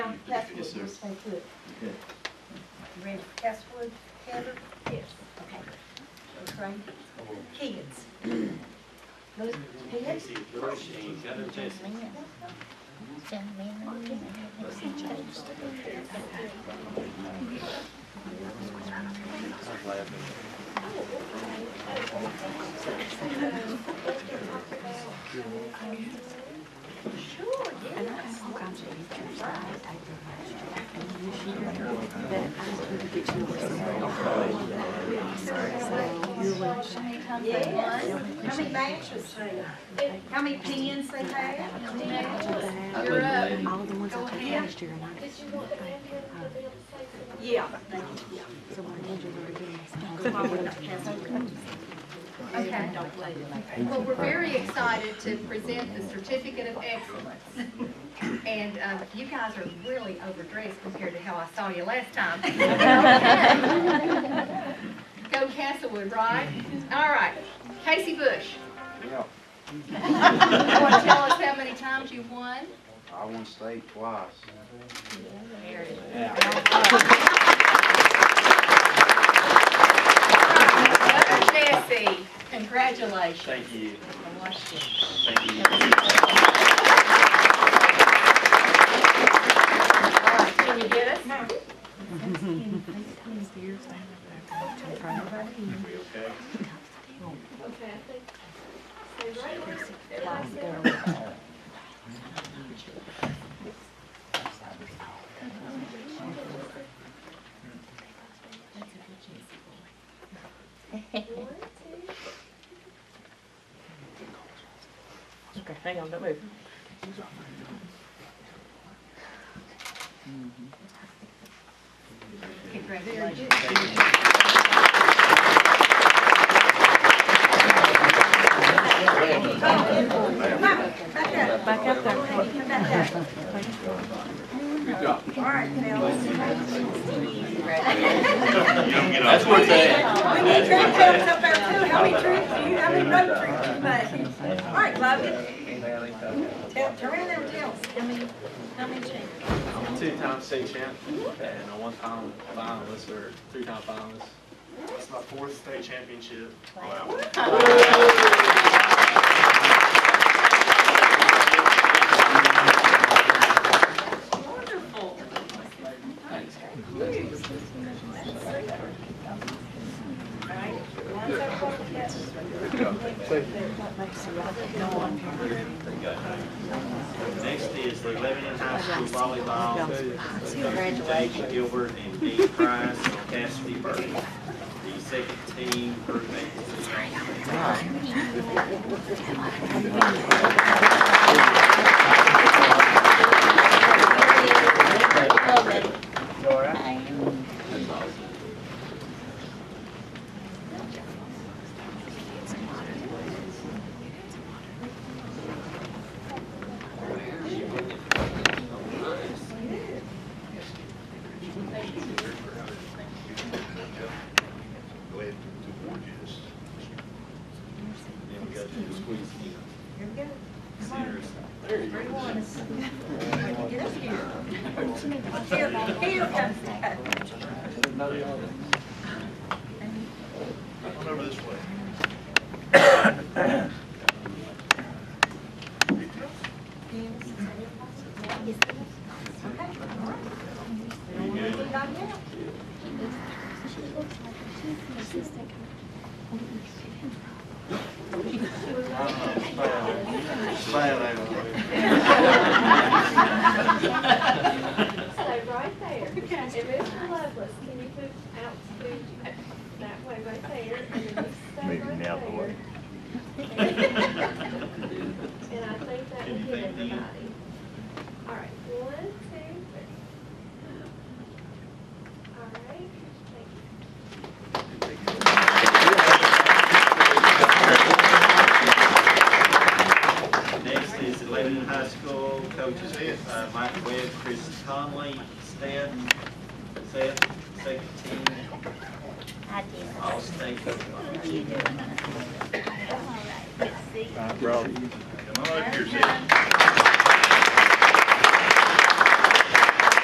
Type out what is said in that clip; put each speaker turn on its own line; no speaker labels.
Yes, sir.
Stay put.
Okay.
You ready for Castlewood, Heather? Yes. Okay. Okay. Kids. Those kids?
Casey Brushing, Heather Jessen,
Yes. How many matches they have? How many pins they have?
I think the lady,
All the ones I took last year, and I,
Did you want the ambulance to be able to say something?
Yeah.
so my manager's already giving me some.
Okay. Well, we're very excited to present the certificate of excellence. And um, you guys are really overdressed compared to how I saw you last time. Go Castlewood, right? All right. Casey Bush.
Yeah,
You want to tell us how many times you won?
I won state twice.
Very good. Heather Jessie, congratulations.
thank you,
From Washington.
thank you.
All right, Can you get us?
We okay?
Okay, I think, say right where everybody said. One, two,
Okay, hang on, don't move.
Congratulations.
Back up there. Come back up. All right, fellas.
that's where it's at.
We need tree trimmers up there too. How many trees do you, how many road trees do you make? All right, Logan. Tell, turn around there and tell us. How many, how many trees?
I'm a two-time state champ and a one-time finalist or three-time finalist. It's my fourth state championship. Wow.
Wonderful.
Next is the Lebanon High School volleyball. David Gilbert and Dean Price and Cassidy Burke. The second team group vacancy. Then we go to the squeeze team.
Here we go.
Seniors.
Three ones. Get up here. Here, here comes that.
Come over this way.
Stay right there. And Mr. Lovelace, can you move out to that way right there? And then you stay
Moving
right
out the way.
there. And I think that will
Anything,
get
Dean?
everybody. All right, one, two, three. All right, thank you.
Next is the Lebanon High School coaches, uh, Mike Webb, Chris Conley, Stan, Seth, second team,
I did.
all state.
All right. Let's see.
Come on up here, Seth.